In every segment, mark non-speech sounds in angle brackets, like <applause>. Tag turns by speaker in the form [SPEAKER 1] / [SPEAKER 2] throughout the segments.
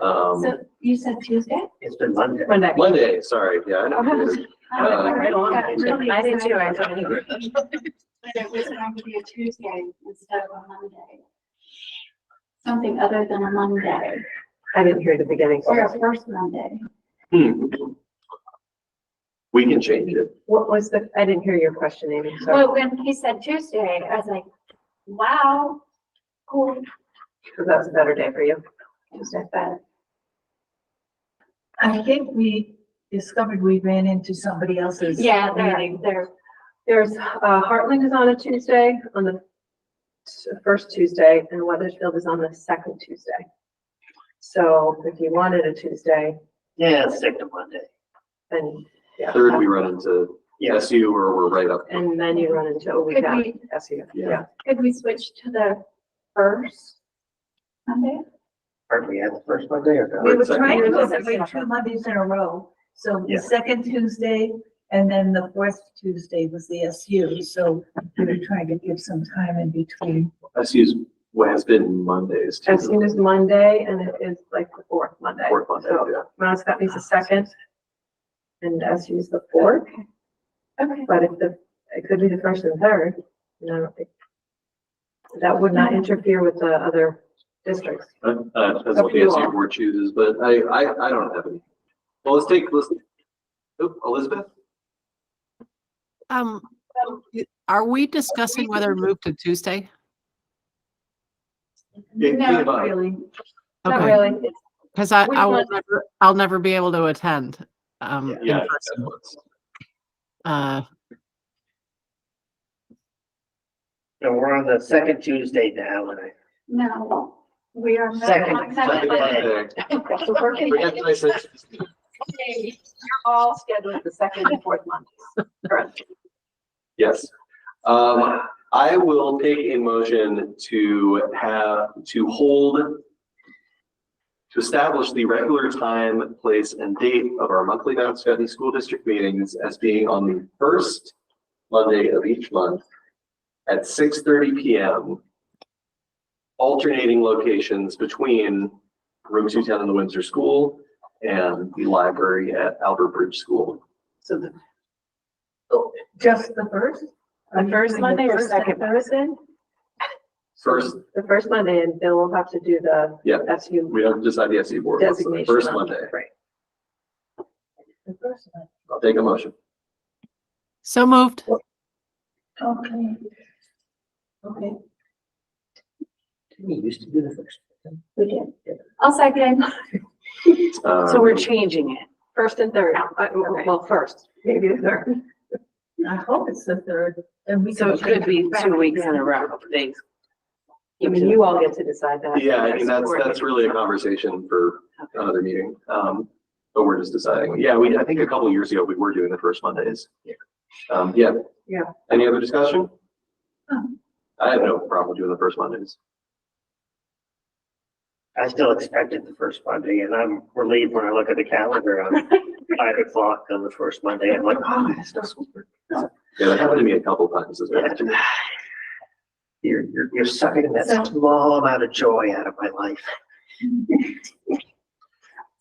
[SPEAKER 1] Um,
[SPEAKER 2] So you said Tuesday?
[SPEAKER 1] it's been Monday.
[SPEAKER 3] Monday.
[SPEAKER 1] Monday, sorry, yeah. I know.
[SPEAKER 2] I was like,
[SPEAKER 1] right on.
[SPEAKER 2] got really
[SPEAKER 3] I did too, I
[SPEAKER 2] excited
[SPEAKER 3] told you.
[SPEAKER 2] <laughs> That it was going to be a Tuesday instead of a Monday. Something other than a Monday
[SPEAKER 3] I didn't hear the beginning.
[SPEAKER 2] or a first Monday.
[SPEAKER 1] Hmm. We can change it.
[SPEAKER 3] What was the, I didn't hear your question, Amy, sorry.
[SPEAKER 2] Well, when he said Tuesday, I was like, wow, cool.
[SPEAKER 3] So that was a better day for you.
[SPEAKER 2] Tuesday's better.
[SPEAKER 4] I think we discovered we ran into somebody else's.
[SPEAKER 2] Yeah, they're,
[SPEAKER 4] meeting.
[SPEAKER 2] they're,
[SPEAKER 3] There's, uh, Heartland is on a Tuesday, on the s- first Tuesday, and Weathersfield is on the second Tuesday. So if you wanted a Tuesday,
[SPEAKER 5] Yeah, second Monday.
[SPEAKER 3] then, yeah.
[SPEAKER 1] Third, we run into
[SPEAKER 5] Yes,
[SPEAKER 1] SU or we're right up.
[SPEAKER 3] And then you run into oh, a
[SPEAKER 2] could
[SPEAKER 3] weekend,
[SPEAKER 2] we,
[SPEAKER 3] SU,
[SPEAKER 1] Yeah.
[SPEAKER 3] yeah.
[SPEAKER 2] could we switch to the first Monday?
[SPEAKER 5] aren't we at the first Monday or
[SPEAKER 4] We
[SPEAKER 5] no?
[SPEAKER 4] were
[SPEAKER 1] Second
[SPEAKER 4] trying to
[SPEAKER 3] Monday.
[SPEAKER 4] celebrate two Mondays in a row. So the
[SPEAKER 5] Yeah.
[SPEAKER 4] second Tuesday and then the fourth Tuesday was the SU. So we were trying to give some time in between.
[SPEAKER 1] SU's, well, has been Mondays. too.
[SPEAKER 3] As soon as Monday, and it is like the fourth Monday.
[SPEAKER 1] Fourth Monday,
[SPEAKER 3] So
[SPEAKER 1] yeah.
[SPEAKER 3] Mount Scottney's the second, and SU's the fourth,
[SPEAKER 2] Okay,
[SPEAKER 3] but if the, it could be the first and third, you know. it- That would not interfere with the other districts.
[SPEAKER 1] Uh, uh, depends what the SU board chooses, but I, I, I don't have any. Well, let's take, let's, oop, Elizabeth?
[SPEAKER 6] Um, y- are we discussing whether to move to Tuesday?
[SPEAKER 1] Yeah,
[SPEAKER 2] No,
[SPEAKER 1] think about it.
[SPEAKER 4] Really,
[SPEAKER 3] Not
[SPEAKER 6] Okay.
[SPEAKER 3] really, it's
[SPEAKER 6] Cause I,
[SPEAKER 3] We
[SPEAKER 6] I will
[SPEAKER 3] want-
[SPEAKER 6] never, I'll never be able to attend, um, in
[SPEAKER 1] Yeah.
[SPEAKER 6] person. Uh,
[SPEAKER 5] No, we're on the second Tuesday now, and I,
[SPEAKER 2] no, we are. not-
[SPEAKER 5] Second.
[SPEAKER 1] Second
[SPEAKER 2] Second Monday.
[SPEAKER 1] Monday.
[SPEAKER 3] the working
[SPEAKER 1] Forget
[SPEAKER 3] day.
[SPEAKER 1] what I said.
[SPEAKER 3] You're all scheduled the second and fourth Mondays. Correct.
[SPEAKER 1] Yes. Um, I will take a motion to have, to hold, to establish the regular time, place, and date of our monthly Mount Scotty School District meetings as being on the first Monday of each month at six thirty PM, alternating locations between room two ten in the Windsor School and the library at Albert Bridge School.
[SPEAKER 4] so the, oh, just the first?
[SPEAKER 3] The first Monday or
[SPEAKER 4] First and
[SPEAKER 3] second
[SPEAKER 4] third?
[SPEAKER 3] Thursday?
[SPEAKER 1] First,
[SPEAKER 3] The first Monday, and then we'll have to do the
[SPEAKER 1] Yeah.
[SPEAKER 3] SU
[SPEAKER 1] we don't decide the SE board, it's the
[SPEAKER 3] designation.
[SPEAKER 1] first
[SPEAKER 3] on-
[SPEAKER 1] Monday.
[SPEAKER 3] Right.
[SPEAKER 4] The first one.
[SPEAKER 1] I'll take a motion.
[SPEAKER 6] so moved.
[SPEAKER 4] Okay. Okay.
[SPEAKER 5] we used to do the first.
[SPEAKER 2] We did. I'll second.
[SPEAKER 1] Um,
[SPEAKER 7] So we're changing it.
[SPEAKER 3] First and third, Uh,
[SPEAKER 7] Okay.
[SPEAKER 3] well, first, maybe the third.
[SPEAKER 4] I hope it's the third and we.
[SPEAKER 7] So
[SPEAKER 4] can
[SPEAKER 7] it could be
[SPEAKER 4] change
[SPEAKER 7] two
[SPEAKER 4] back.
[SPEAKER 7] weeks in a row. <laughs> Thanks.
[SPEAKER 3] I mean, you all get to decide that.
[SPEAKER 1] Yeah, I mean, that's, that's really a conversation for another meeting. Um, but we're just deciding. Yeah, we, I think a couple of years ago, we were doing the first Mondays. Um, yeah.
[SPEAKER 3] Yeah.
[SPEAKER 1] Any other discussion?
[SPEAKER 4] Um.
[SPEAKER 1] I have no problem doing the first Mondays.
[SPEAKER 5] I still expected the first Monday, and I'm relieved when I look at the calendar <laughs> on five o'clock on the first Monday. I'm like, oh, it's not school.
[SPEAKER 1] Yeah, that happened to me a couple of times as well.
[SPEAKER 5] You're, you're, you're sucking
[SPEAKER 2] So-
[SPEAKER 5] that small amount of joy out of my life.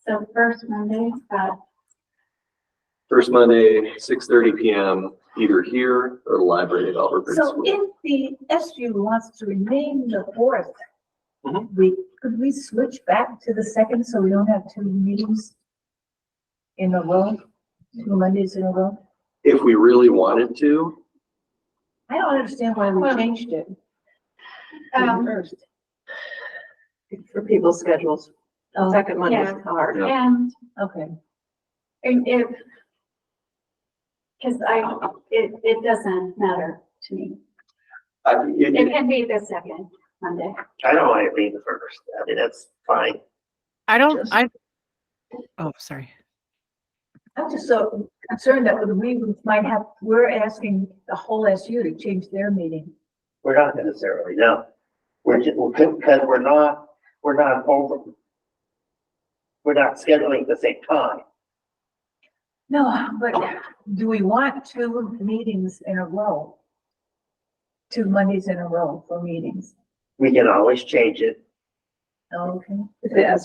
[SPEAKER 2] So first Monday, uh,
[SPEAKER 1] First Monday, six thirty PM, either here or the library at Albert Bridge
[SPEAKER 4] So
[SPEAKER 1] School.
[SPEAKER 4] if the SU wants to remain the fourth,
[SPEAKER 1] Mhm.
[SPEAKER 4] we, could we switch back to the second so we don't have two meetings in a row? Two Mondays in a row?
[SPEAKER 1] If we really wanted to,
[SPEAKER 4] I don't understand why we
[SPEAKER 2] Well,
[SPEAKER 4] changed it. to the
[SPEAKER 2] um,
[SPEAKER 4] first.
[SPEAKER 3] For people's schedules,
[SPEAKER 4] Oh,
[SPEAKER 3] second Monday is hard.
[SPEAKER 1] Yeah.
[SPEAKER 2] and,
[SPEAKER 4] okay.
[SPEAKER 2] and if, cause I, it, it doesn't matter to me.
[SPEAKER 1] I,
[SPEAKER 2] It
[SPEAKER 1] it,
[SPEAKER 2] can be the second Monday.
[SPEAKER 5] I don't want it being the first. I mean, that's fine.
[SPEAKER 6] I don't,
[SPEAKER 5] Yes.
[SPEAKER 6] I, oh, sorry.
[SPEAKER 4] I'm just so concerned that we might have, we're asking the whole SU to change their meeting.
[SPEAKER 5] We're not necessarily, no. We're, ju- we're, because we're not, we're not over. We're not scheduling at the same time.
[SPEAKER 4] No, but do we want two meetings in a row? Two Mondays in a row for meetings?
[SPEAKER 5] We can always change it.
[SPEAKER 4] Okay.
[SPEAKER 3] If the